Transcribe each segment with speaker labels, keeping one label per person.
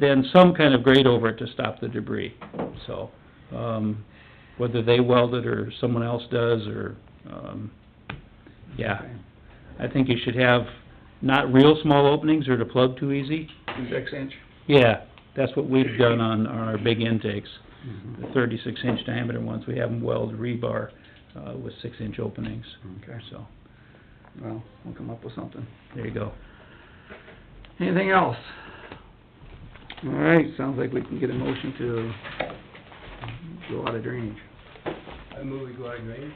Speaker 1: then some kind of grate over it to stop the debris, so, um, whether they weld it or someone else does, or, um, yeah. I think you should have not real small openings or to plug too easy.
Speaker 2: Six inch?
Speaker 1: Yeah, that's what we've done on our big intakes, the thirty-six inch diameter ones, we have them weld rebar, uh, with six inch openings,
Speaker 2: Okay,
Speaker 1: so,
Speaker 2: well, we'll come up with something.
Speaker 1: there you go.
Speaker 2: Anything else? All right, sounds like we can get a motion to go out of drainage.
Speaker 3: I move we go out of range.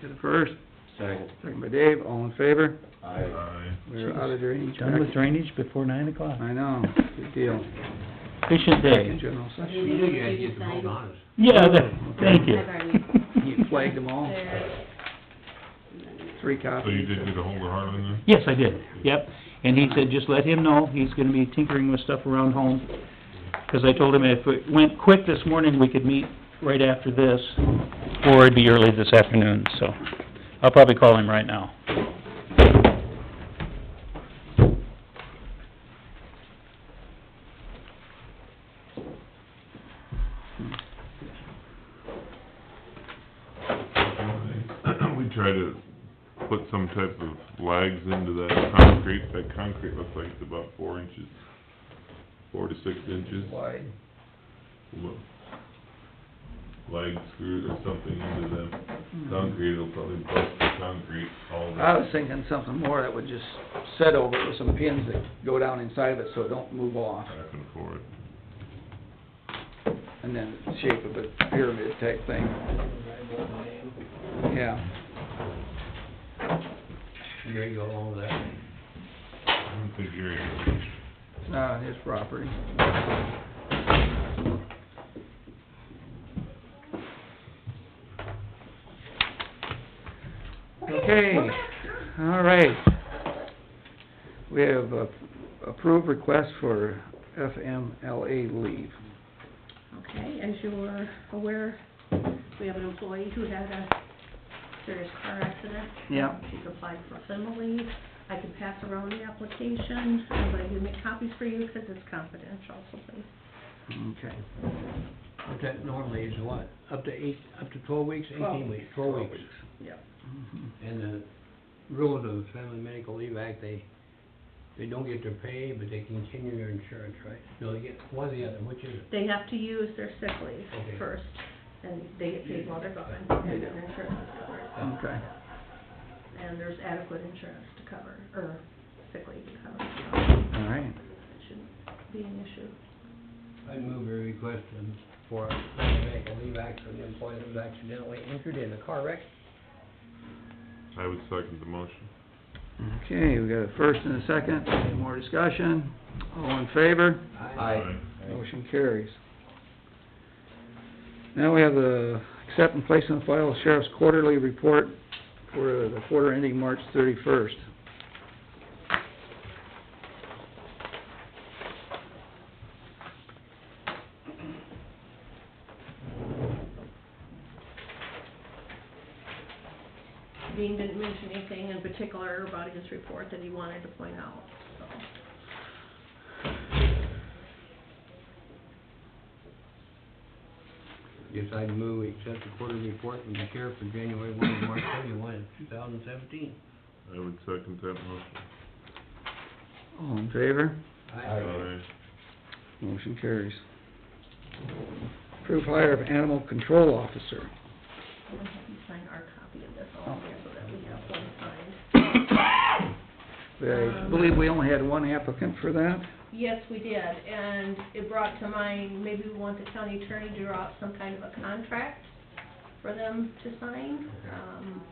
Speaker 2: Get a first,
Speaker 3: Second.
Speaker 2: second by Dave, all in favor?
Speaker 3: Aye.
Speaker 2: We're out of drainage.
Speaker 1: Done with drainage before nine o'clock,
Speaker 2: I know, good deal.
Speaker 1: efficient
Speaker 2: In
Speaker 1: day.
Speaker 2: general
Speaker 3: You
Speaker 2: session.
Speaker 3: knew you had to get the vote on it.
Speaker 1: Yeah, that- thank you.
Speaker 4: I've already-
Speaker 2: You flagged them all,
Speaker 4: There.
Speaker 2: three copies.
Speaker 5: So you did get ahold of Harlan then?
Speaker 1: Yes, I did, yep. And he said, just let him know, he's gonna be tinkering with stuff around home. 'Cause I told him if it went quick this morning, we could meet right after this, or it'd be early this afternoon, so I'll probably call him right now.
Speaker 5: We try to put some type of lags into that concrete, that concrete looks like it's about four inches, four to six inches.
Speaker 2: Wide.
Speaker 5: Look. Lag screws or something into the concrete, it'll probably bust the concrete all the...
Speaker 2: Mm-hmm. I was thinking something more that would just set over it with some pins that go down inside of it so it don't move off.
Speaker 5: Back and forth.
Speaker 2: and then shape of a pyramid type thing. Yeah,
Speaker 3: Gary go along with that.
Speaker 5: I don't think you're,
Speaker 2: it's not on his property. Okay, all right. We have uh, approved request for FMLA leave.
Speaker 4: Okay, as you're aware, we have an employee who had a serious car accident.
Speaker 2: Yeah.
Speaker 4: She's applied for family. I can pass around the application, I'm going to make copies for you because it's confidential, so please.
Speaker 2: Okay,
Speaker 3: But that normally is what, up to eight, up to twelve weeks,
Speaker 4: Twelve
Speaker 3: eighteen weeks, twelve weeks. Mm-hmm.
Speaker 4: Yep.
Speaker 3: And the rules of the Family Medical Leave Act, they, they don't get their pay, but they continue their insurance, right? No, they get one or the other, which is it?
Speaker 4: They have to use their sick leave
Speaker 3: Okay.
Speaker 4: first, and they get paid while they're gone,
Speaker 2: They
Speaker 4: and
Speaker 2: do.
Speaker 4: their insurance is covered.
Speaker 2: okay.
Speaker 4: And there's adequate insurance to cover, or sick leave to cover,
Speaker 2: All right,
Speaker 4: so it shouldn't be an issue.
Speaker 3: I move a request in- for a Family Medical Leave Act for an employee that was accidentally injured in a car wreck.
Speaker 5: I would second the motion.
Speaker 2: okay, we got a first and a second, any more discussion? All in favor?
Speaker 5: Aye.
Speaker 2: Motion carries. Now we have the accept and place on file sheriff's quarterly report for the quarter ending March thirty-first.
Speaker 4: Dean didn't mention anything in particular about his report that he wanted to point out, so.
Speaker 3: Yes, I move we accept the quarterly report from the sheriff for January one to March thirty-one, two thousand seventeen.
Speaker 5: I would second that motion.
Speaker 2: All in favor?
Speaker 5: Aye.
Speaker 2: Motion carries. Approve hire of animal control officer.
Speaker 4: I'm gonna have you sign our copy of this all here so that we have one signed.
Speaker 2: I believe we only had one applicant for that.
Speaker 4: Yes, we did, and it brought to mind, maybe we want the county attorney to draw up some kind of a contract for them to sign. Um,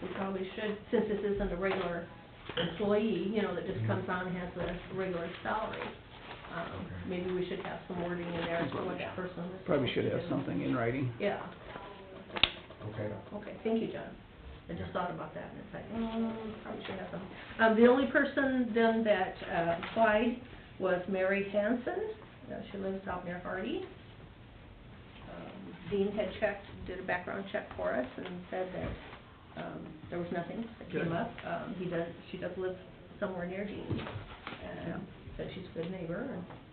Speaker 4: we probably should, since this isn't a regular employee, you know, that just
Speaker 2: Mm-hmm.
Speaker 4: comes on and has a regular salary. Um, maybe we should have some wording in there as to what that person is.
Speaker 2: Probably should have
Speaker 4: supposed to do.
Speaker 2: something in writing.
Speaker 4: Yeah,
Speaker 3: Okay.
Speaker 4: okay, thank you, John. I just thought about that, and it's like, mm, probably should have some. Um, the only person then that, uh, applied was Mary Hanson, Uh, she lives out near Hardy. Um, Dean had checked, did a background check for us and said that, um, there was nothing that came
Speaker 2: Good.
Speaker 4: up. Um, he does, she does live somewhere near Dean, and said she's a good neighbor, and